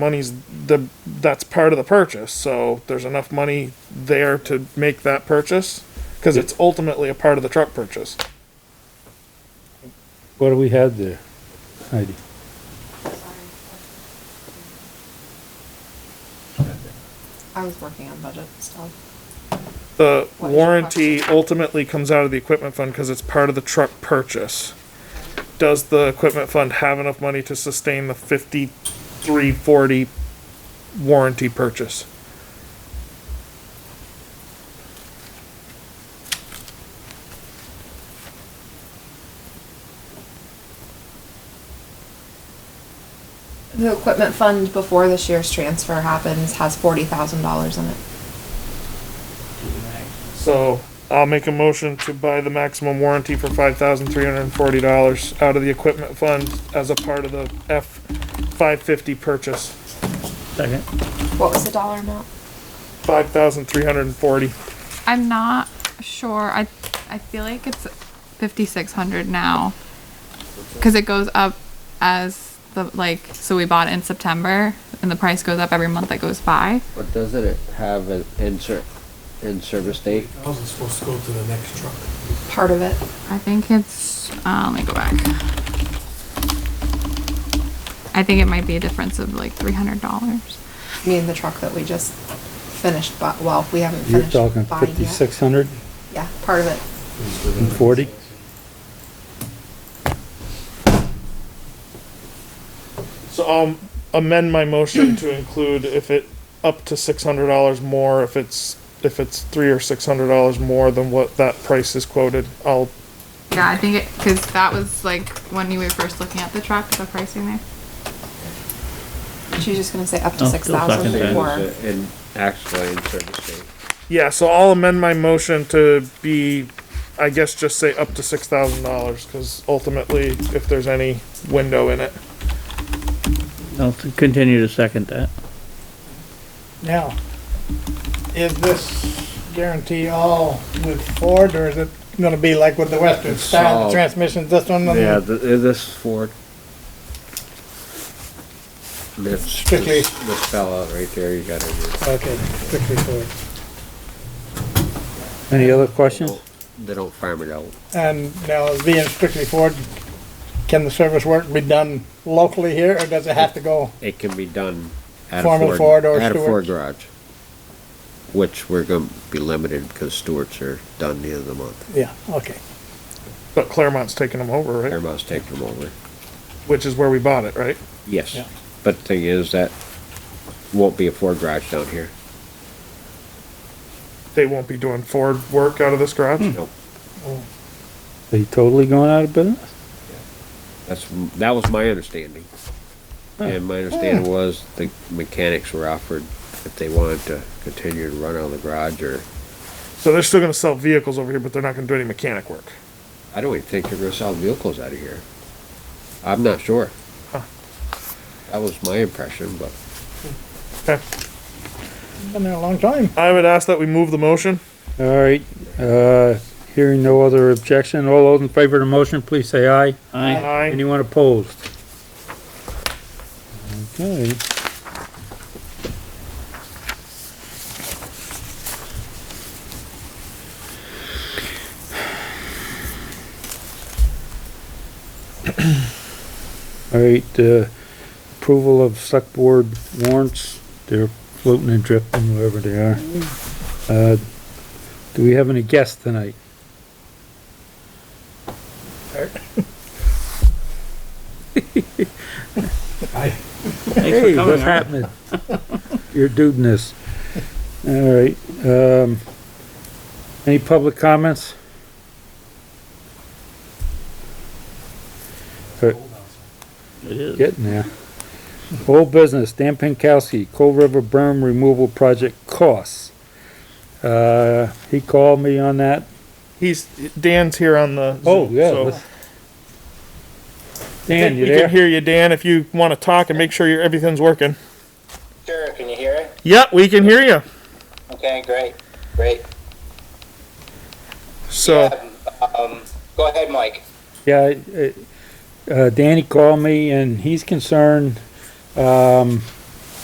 money's the that's part of the purchase. So there's enough money there to make that purchase because it's ultimately a part of the truck purchase. What do we have there, Heidi? I was working on budget stuff. The What is your warranty ultimately comes out of the equipment fund because it's part of the truck purchase. Does the equipment fund have enough money to sustain the fifty-three forty warranty purchase? The equipment fund before this year's transfer happens has forty thousand dollars in it. So I'll make a motion to buy the maximum warranty for five thousand three hundred and forty dollars out of the equipment fund as a part of the F five fifty purchase. Second. What was the dollar amount? Five thousand three hundred and forty. I'm not sure. I I feel like it's 5600 now. Cuz it goes up as the like so we bought it in September and the price goes up every month that goes by. But doesn't it have an insert, in-service date? I wasn't supposed to go to the next truck. Part of it. I think it's uh, let me go back. I think it might be a difference of like $300. Me and the truck that we just finished, but, well, we haven't You're finished talking buying yet. fifty-six hundred Yeah, part of it. and forty? So I'll amend my motion to include if it up to six hundred dollars more, if it's if it's three or six hundred dollars more than what that price is quoted, I'll Yeah, I think it cuz that was like when you were first looking at the truck, the pricing there. She's just gonna say up to Oh, six still thousand second or In, actually, in-service date. yeah, so I'll amend my motion to be I guess just say up to six thousand dollars, because ultimately if there's any window in it. I'll s- continue to second that. Now, is this guarantee all with Ford, or is it gonna be like with the Western It's style, all- the transmission, this one? and Yeah, th- is this Ford? This, Strictly- this this fella right there, you gotta do. Okay, strictly Ford. Any other questions? They don't farm it out. And now, being strictly Ford, can the service work be done locally here, or does it have to go? It can be done at a Foreman Ford, Ford or at a Ford Stewart's? garage. Which we're gonna be limited because Stewart's are done the end of the month. Yeah, okay. But Claremont's taking them over, right? Paramount's taking them over. Which is where we bought it, right? Yes, Yeah. but the thing is that won't be a Ford garage down here. They won't be doing Ford work out of this garage. Nope. Are you totally going out of business? That's, that was my understanding. And my understanding was the mechanics were offered if they wanted to continue to run out of the garage or, So they're still gonna sell vehicles over here, but they're not gonna do any mechanic work. I don't even think they're gonna sell vehicles out of here. I'm not sure. That was my impression, but Okay. Been there a long time. I would ask that we move the motion. All right, uh, hearing no other objection, all those in favor of the motion, please say aye. Aye. Aye. Anyone opposed? Okay. All right, uh, approval of select board warrants, they're floating and drifting wherever they are. Uh, do we have any guests tonight? Thanks for Hey, coming, what's Art. happening? You're doing this. All right, um, any public comments? Uh, It is. Getting there. Old business, Dan Pinkowski, Cold River berm removal project costs. Uh, he called me on that. He's, Dan's here on the. Zoom, so- let's- I Oh, Dan, think you We can there? hear you, Dan, if you wanna talk and make sure your, everything's working. Sure, can you hear it? Yeah, we can hear you. Okay, great, great. So, Um, go ahead, Mike. Yeah, uh, uh, Danny called me and he's concerned, um,